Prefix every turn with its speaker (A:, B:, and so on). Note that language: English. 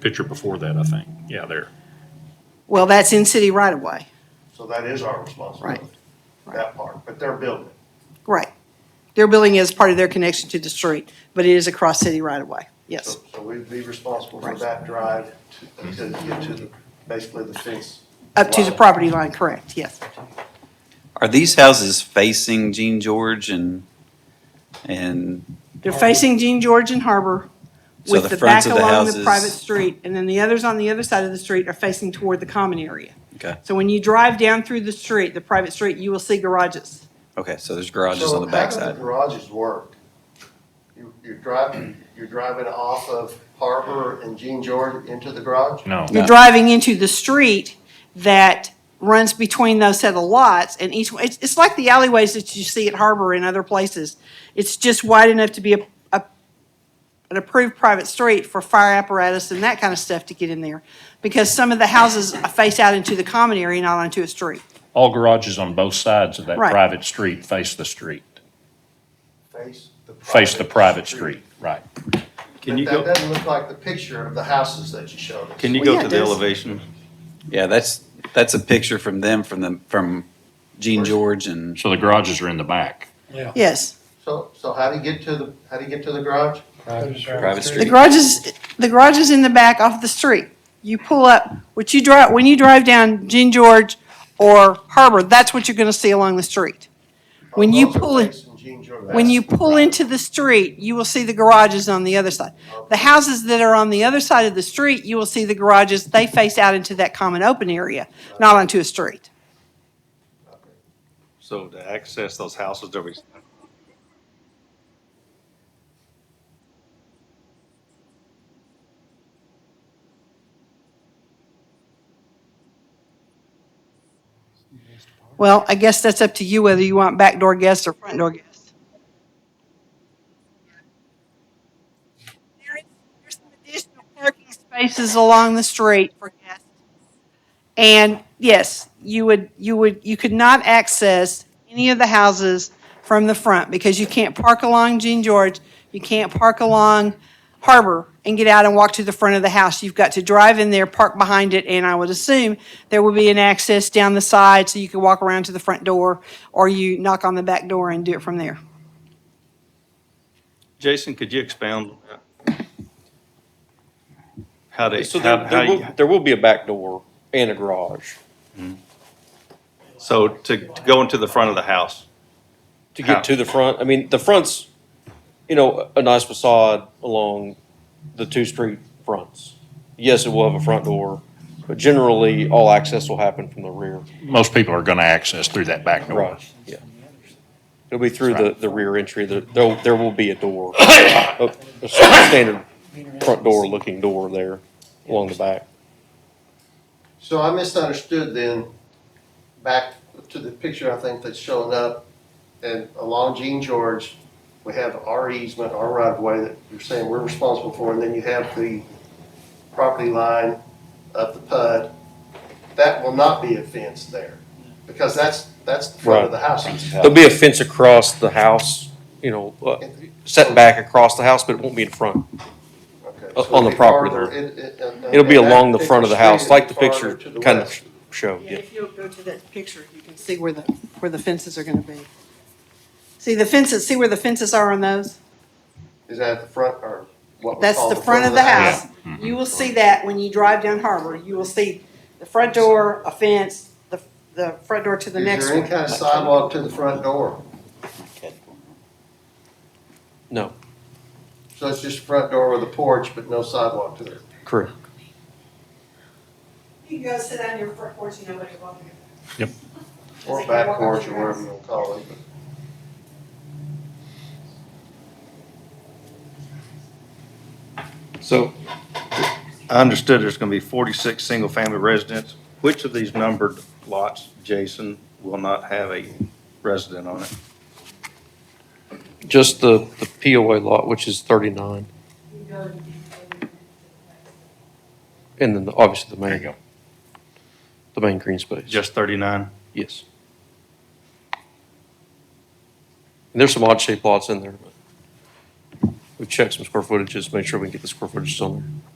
A: picture before that, I think. Yeah, there.
B: Well, that's in city right of way.
C: So that is our responsibility,
B: Right.
C: that part, but they're building.
B: Right. Their building is part of their connection to the street, but it is across city right of way. Yes.
C: So so we'd be responsible for
B: Right.
C: that drive to- until you get to the, basically the fence.
B: Up to the property line, correct, yes.
D: Are these houses facing Gene George and, and,
B: They're facing Jean George and Harbor
D: So
B: with
D: the
B: the back
D: fronts of the
B: along the
D: houses-
B: private street. And then the others on the other side of the street are facing toward the common area.
D: okay,
B: So when you drive down through the street, the private street, you will see garages.
D: okay, so there's garages on
C: So how
D: the
C: do
D: backside?
C: the garages work? You, you're driving, you're driving off of Harbor and Jean George into the garage?
A: No.
B: You're
D: No.
B: driving into the street that runs between those set of lots and each, one- it's, it's like the alleyways that you see at Harbor and other places. It's just wide enough to be a, a, an approved private street for fire apparatus and that kind of stuff to get in there. Because some of the houses face out into the common area, not onto a street.
A: All garages on both sides of that
B: Right.
A: private street face the street,
C: Face the private.
A: face the private street, right.
E: Can you
C: But
E: go,
C: that doesn't look like the picture of the houses that you showed us.
E: can you
B: Well,
E: go
B: yeah,
E: to the
B: there's-
E: elevation?
D: Yeah, that's, that's a picture from them, from the, from Gene George and,
A: So the garages are in the back.
B: Yes.
C: So, so how do you get to the, how do you get to the garage?
D: Private
B: The
D: street.
B: garage is, the garage is in the back off the street. You pull up, what you drive, when you drive down Jean George or Harbor, that's what you're gonna see along the street. When you
C: Those are
B: pull in-
C: facing Jean George.
B: When you pull
C: Right.
B: into the street, you will see the garages on the other side. The houses that are on the other side of the street, you will see the garages, they face out into that common open area, not onto a street.
F: So to access those houses, there'll be
B: Well, I guess that's up to you whether you want backdoor guests or front door guests. There is- There's some additional parking spaces along the street for guests. And yes, you would, you would, you could not access any of the houses from the front because you can't park along Jean George, you can't park along Harbor and get out and walk to the front of the house. You've got to drive in there, park behind it, and I would assume there will be an access down the side so you can walk around to the front door or you knock on the back door and do it from there.
F: Jason, could you expound? How they,
G: So
F: how,
G: there,
F: how
G: there
F: you,
G: will, there will be a back door and a garage
F: so to, to go into the front of the house?
G: to get to the front. I mean, the front's, you know, a nice facade along the two street fronts. Yes, it will have a front door, but generally, all access will happen from the rear.
F: Oh,
A: Most people are gonna access through that back door.
G: Right, yeah. It'll be through the, the rear entry, there, there, there will be a door, a, a standard front door looking door there along the back.
C: So I misunderstood then, back to the picture I think that's showing up, and along Gene George, we have our easement, our right of way that you're saying we're responsible for, and then you have the property line of the PUD. That will not be a fence there, because that's, that's the front of the house.
G: There'll be a fence across the house, you know, uh, set back across the house, but it won't be in front.
C: Okay,
G: uh,
C: so
G: on
C: it'll
G: the
C: be
G: property
C: farther
G: there.
C: in- in- in-
G: It'll be
C: in that
G: along the front of the
C: particular
G: house,
C: street,
G: like the
C: farther
G: picture
C: to the
G: kind
C: west.
G: of showed, yeah.
B: you'll go to that picture, you can see where the, where the fences are gonna be. See the fences, see where the fences are on those?
C: Is that the front, or what we
B: That's
C: call
B: the front of the house. You will see that when you drive down Harbor. You will see the front door, a fence, the, the front door to the
C: Is
B: next
C: there any
B: one.
C: kind of sidewalk to the front door?
G: No,
C: So it's just front door with a porch, but no sidewalk to it.
G: correct.
B: You can go sit on your front porch and nobody will bother you.
C: Or back porch, or whatever you want to call it.
F: So I understood there's gonna be forty-six single-family residents. Which of these numbered lots, Jason, will not have a resident on it?
G: Just the, the POA lot, which is thirty-nine, and then the- obviously the
A: There you
G: main,
A: go.
G: the main green space.
F: Just thirty-nine?
G: Yes. And there's some odd shaped lots in there, but we checked some square footages, made sure we can get the square footages on there.